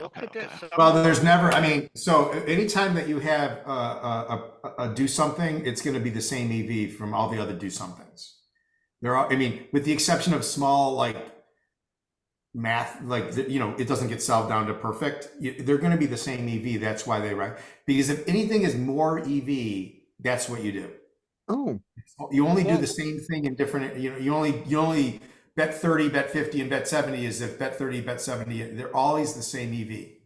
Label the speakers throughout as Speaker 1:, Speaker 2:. Speaker 1: Okay,
Speaker 2: But there's
Speaker 1: okay.
Speaker 2: some-
Speaker 3: Well, there's never, I mean, so a- anytime that you have a, a, a, a do something, it's gonna be the same EV from all the other do somethings. There are, I mean, with the exception of small, like math, like, the- you know, it doesn't get solved down to perfect, you- they're gonna be the same EV, that's why they write. Because if anything is more EV, that's what you do.
Speaker 1: Oh,
Speaker 3: You only do
Speaker 1: Yeah.
Speaker 3: the same thing in different, you know, you only, you only bet thirty, bet fifty, and bet seventy is if bet thirty, bet seventy, they're always the same E EV.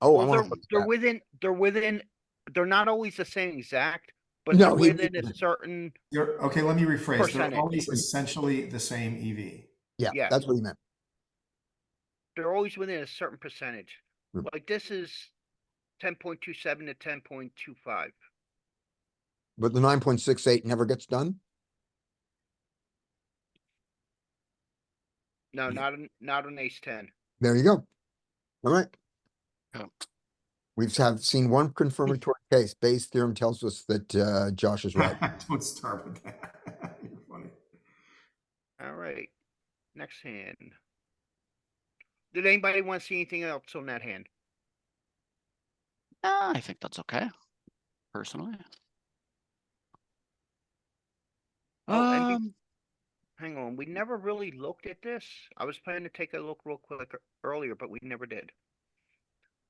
Speaker 1: oh, I
Speaker 2: Well,
Speaker 1: wanna
Speaker 2: they're,
Speaker 1: watch
Speaker 2: they're
Speaker 1: that.
Speaker 2: within, they're within, they're not always the same exact, but they're
Speaker 1: No, you-
Speaker 2: within a certain,
Speaker 3: You're, okay, let me rephrase. They're
Speaker 2: Percentage.
Speaker 3: always essentially the same E EV.
Speaker 1: Yeah,
Speaker 2: yeah.
Speaker 1: that's what he meant.
Speaker 2: they're always within a certain percentage.
Speaker 1: Mm.
Speaker 2: Like this is ten point two seven to ten point two five.
Speaker 1: But the nine point six eight never gets done?
Speaker 2: No,
Speaker 3: Yeah.
Speaker 2: not, on not on ace ten.
Speaker 1: There you go. Alright.
Speaker 4: Yeah.
Speaker 1: We've have seen one confirmatory case. Bayes' theorem tells us that, uh, Josh is right.
Speaker 3: Don't start with that. You're funny.
Speaker 2: Alright, next hand. Did anybody want to see anything else on that hand?
Speaker 4: Nah, I think that's okay, personally.
Speaker 2: Oh, and be-
Speaker 4: Um,
Speaker 2: Hang on, we never really looked at this. I was planning to take a look real quick ear- earlier, but we never did.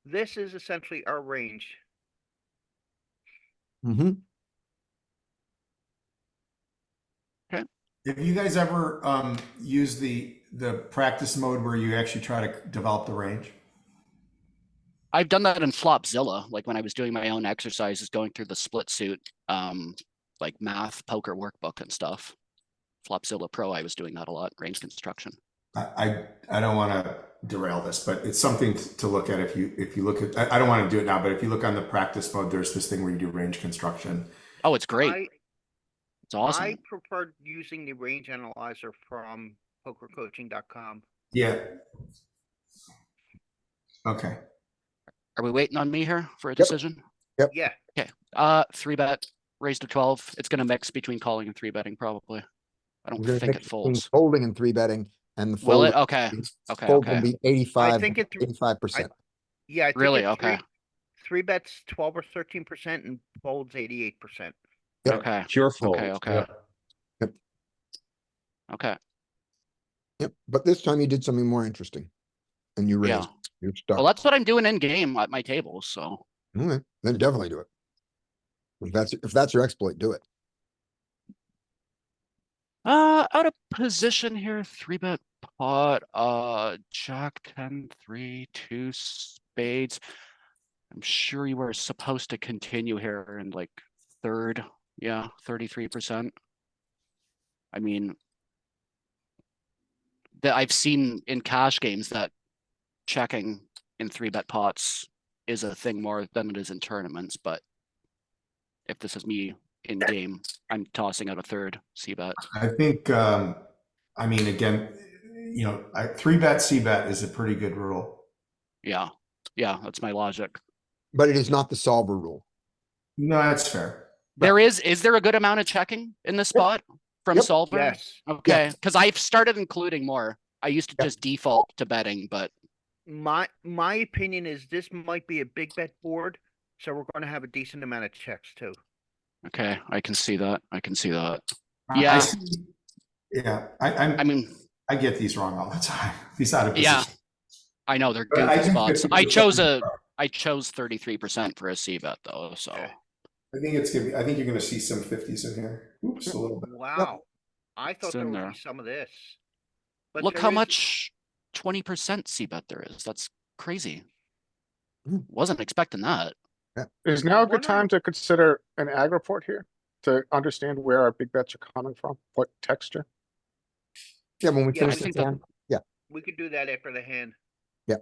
Speaker 2: This is essentially our range.
Speaker 1: Mm-hmm.
Speaker 3: Have you guys ever um used the the practice mode where you actually try to develop the range?
Speaker 4: I've done that in Flopzilla, like when I was doing my own exercises, going through the split suit, um, like math, poker workbook and stuff. Flopzilla Pro, I was doing that a lot, range construction.
Speaker 3: I I, I don't want to derail this, but it's something t- to look at if you if you look at I, I don't want to do it now, but if you look on the practice mode, there's this thing where you do range construction.
Speaker 4: Oh, it's great.
Speaker 2: I,
Speaker 4: It's awesome.
Speaker 2: I preferred using the range analyzer from pokercoaching.com.
Speaker 3: Yeah. Okay.
Speaker 4: Are we waiting on me here for a
Speaker 1: Yep.
Speaker 4: decision?
Speaker 2: Yeah,
Speaker 4: Uh, three bet, raised to twelve. It's gonna mix between calling and three betting probably. I don't think it folds.
Speaker 1: Folding and three betting and the.
Speaker 4: Will
Speaker 1: fold-
Speaker 4: it? Okay, okay,
Speaker 1: Fold will
Speaker 4: okay.
Speaker 1: be eighty-five,
Speaker 2: think it-
Speaker 1: eighty-five percent.
Speaker 2: yeah. I think
Speaker 4: Really?
Speaker 2: it's
Speaker 4: Okay.
Speaker 2: three- Three bets twelve or thirteen percent and folds eighty-eight percent.
Speaker 1: Yep.
Speaker 4: Okay,
Speaker 5: Pure fold.
Speaker 4: okay, okay.
Speaker 5: yeah.
Speaker 1: Yep.
Speaker 4: Okay,
Speaker 1: Yep, but this time you did something more interesting. And you
Speaker 4: yeah.
Speaker 1: raised, you're
Speaker 4: Well,
Speaker 1: stuck.
Speaker 4: that's what I'm doing in game at my table, so.
Speaker 1: Okay, Then definitely do it. If that's, if that's your exploit, do it.
Speaker 4: Uh, out of position here, three bet pot, uh, jack ten, three, two spades. I'm sure you were supposed to continue here in like third, yeah, thirty-three percent. I mean. That I've seen in cash games that checking in three bet pots is a thing more than it is in tournaments, but. If this is me in game, I'm tossing out a third C bet.
Speaker 3: I think, um, I mean, again, you know, I, three bet, C bet is a pretty good rule.
Speaker 4: Yeah, yeah, that's my logic.
Speaker 1: But it is not the solver rule.
Speaker 3: No, that's fair.
Speaker 4: There is, is there a good amount of checking in this spot from
Speaker 1: Yep.
Speaker 4: solver?
Speaker 2: Yes,
Speaker 4: Okay, because I've started including more. I used to
Speaker 1: Yep.
Speaker 4: just default to betting, but
Speaker 2: my, my opinion is this might be a big bet board, so we're gonna have a decent amount of checks too.
Speaker 4: okay, I can see that. I can see that.
Speaker 3: I- I
Speaker 4: Yeah.
Speaker 3: see- Yeah, I,
Speaker 4: I
Speaker 3: I'm,
Speaker 4: mean,
Speaker 3: I get these wrong all the time, these out of
Speaker 4: Yeah.
Speaker 3: position.
Speaker 4: I know they're
Speaker 3: But I
Speaker 4: goofy
Speaker 3: think
Speaker 4: spots. I
Speaker 3: 50%
Speaker 4: chose a, I chose thirty-three percent for a C bet though, so.
Speaker 2: Okay.
Speaker 3: I think it's gonna be, I think you're gonna see some fifties in here. Oops, a little bit.
Speaker 2: Wow, I thought
Speaker 4: It's
Speaker 2: there
Speaker 4: in
Speaker 2: would
Speaker 4: there.
Speaker 2: be some of this. But
Speaker 4: Look
Speaker 2: there
Speaker 4: how
Speaker 2: is-
Speaker 4: much twenty percent C bet there is. That's crazy.
Speaker 1: Mm.
Speaker 4: Wasn't expecting that.
Speaker 5: Is now a good
Speaker 2: wonder-
Speaker 5: time to consider an ag report here to understand where our big bets are coming from, what texture?
Speaker 1: Yeah, when we
Speaker 2: Yeah, I
Speaker 1: finish this
Speaker 4: think that-
Speaker 1: down,
Speaker 2: We could do that after the hand.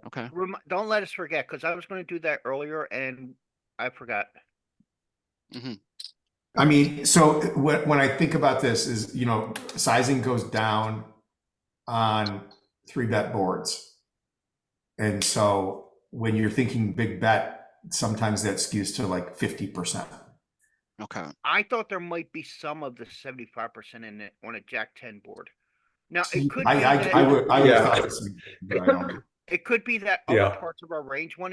Speaker 4: Okay,
Speaker 2: Remi- don't let us forget, cause I was gonna do that earlier and I forgot.
Speaker 3: I mean, so when, when I think about this is, you know, sizing goes down on three bet boards. And so when you're thinking big bet, sometimes that skews to like fifty percent.
Speaker 4: okay.
Speaker 2: I thought there might be some of the seventy-five percent in it on a jack ten board. Now,
Speaker 3: I,
Speaker 2: it could. be
Speaker 3: I, I
Speaker 2: that-
Speaker 3: would, I would.
Speaker 6: Yeah.
Speaker 3: thought this, but I don't.
Speaker 2: It could be that
Speaker 6: Yeah.
Speaker 2: other parts of our range one